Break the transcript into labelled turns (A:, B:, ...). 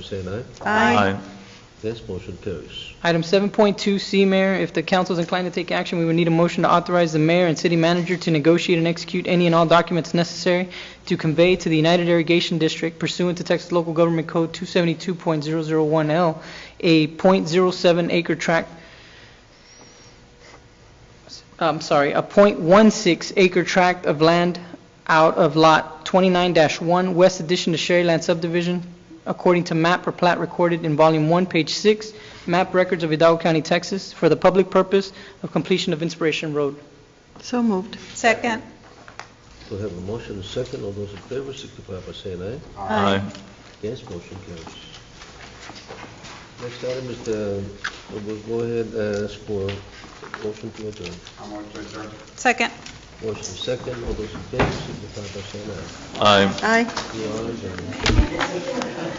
A: favor say an aye.
B: Aye.
A: Against, motion carries.
C: Item 7.2C, Mayor, if the council is inclined to take action, we would need a motion to authorize the mayor and city manager to negotiate and execute any and all documents necessary to convey to the United Irrigation District pursuant to Texas Local Government Code 272.001L, a .07 acre tract, I'm sorry, a .16 acre tract of land out of Lot 29-1, West Addition to Sherryland Subdivision, according to map or plat recorded in Volume 1, Page 6, map records of Hidalgo County, Texas, for the public purpose of completion of Inspiration Road.
B: So moved.
D: Second.
A: We have a motion and second. All those in favor signify by saying aye.
D: Aye.
A: Yes, motion carries. Next item is the, we'll go ahead and ask for motion to adjourn.
E: I'm going to adjourn.
D: Second.
A: Motion second, all those in favor signify by saying aye.
B: Aye.
A: We are adjourned.